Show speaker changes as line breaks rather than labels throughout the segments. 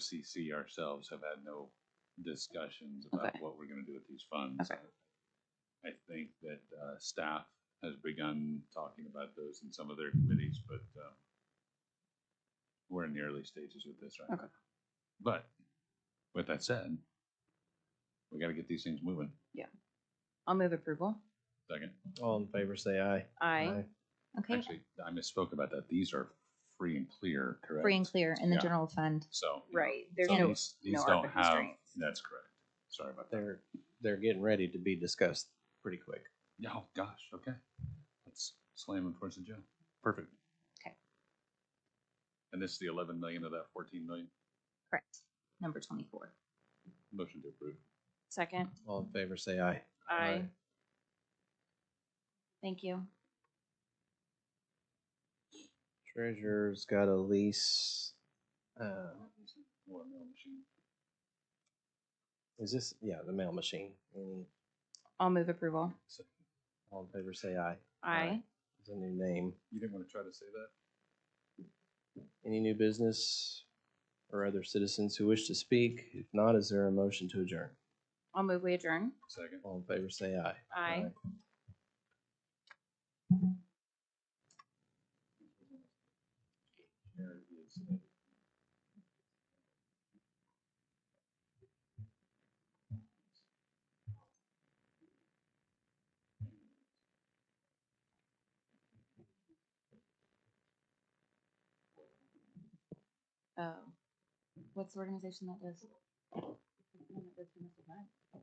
OCC ourselves have had no discussions about
Okay.
what we're gonna do with these funds.
Okay.
I think that, uh, staff has begun talking about those in some of their committees, but, um, we're in the early stages with this right
Okay.
now. But, with that said, we gotta get these things moving.
I'll move approval.
Second,
All in favor, say aye.
Aye. Okay,
actually, I misspoke about that. These are free and clear, correct?
free and clear in the
Yeah.
general fund.
So. you know,
Right, there's
so
no-
these- These
no
don't
ARPA
have,
constraints.
that's correct. Sorry about that.
They're they're getting ready to be discussed pretty quick.
Yeah, Oh, gosh, okay. Let's slam them towards the jail. Perfect.
Okay.
And this is the eleven million of that fourteen million?
Correct. Number twenty-four.
Motion to approve.
Second.
All in favor, say aye.
Aye.
Thank you.
Treasurer's got a lease. Uh,
Or mail machine.
is this yeah the mail machine? Any
I'll move approval.
So,
all in favor, say aye.
Aye.
It's a new name.
You didn't want to try to say that?
Any new business or other citizens who wish to speak? If not, is there a motion to adjourn?
I'll move we adjourn.
Second.
All in favor, say aye.
Aye.
There is a-
Oh, what's the organization that does? the one that does the missile bat?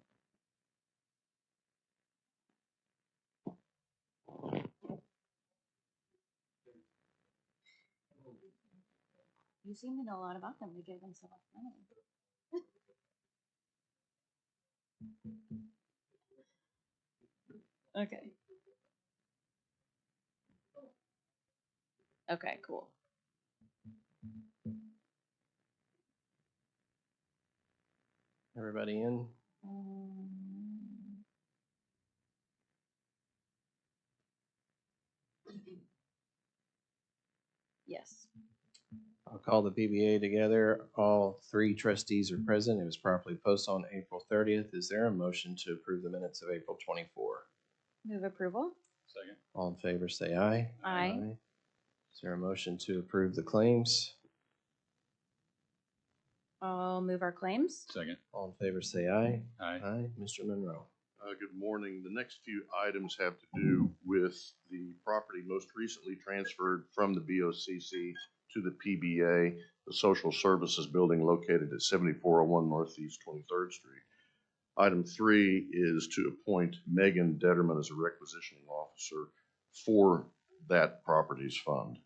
You seem to know a lot about them. We gave them so much money. Okay. Okay, cool.
Everybody in?
Um, Yes.
I'll call the PBA together. All three trustees are present. It was properly posted on April thirtieth. Is there a motion to approve the minutes of April twenty-four?
Move approval?
Second.
All in favor, say aye.
Aye.
Is there a motion to approve the claims?
I'll move our claims.
Second.
All in favor, say aye.
Aye.
Aye. Mr. Monroe.
Uh, Good morning. The next few items have to do with the property most recently transferred from the BOCC to the PBA, the Social Services Building located at 7401 Northeast 23rd Street. Item three is to appoint Megan Detterman as a requisitioning officer for that properties fund.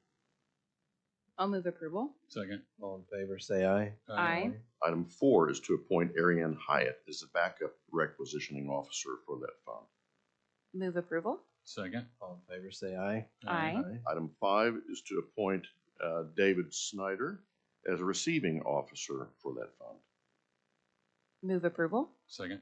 I'll move approval.
Second.
All in favor, say aye.
Aye.
Item four is to appoint Ariane Hyatt as the backup requisitioning officer for that fund.
Move approval?
Second.
All in favor, say aye.
Aye.
Item five is to appoint uh, David Snyder as a receiving officer for that fund.
Move approval?
Second.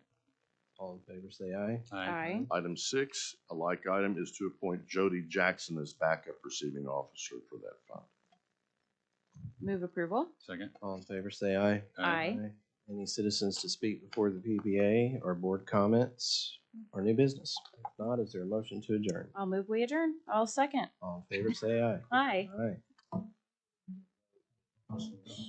All in favor, say aye.
Aye.
Item six, a like item, is to appoint Jody Jackson as backup receiving officer for that fund.
Move approval?
Second.
All in favor, say aye.
Aye.
Any citizens to speak before the PBA or board comments or new business? If not, is there a motion to adjourn?
I'll move we adjourn.
Um,
I'll second.
All in favor, say aye.
Aye.
Aye.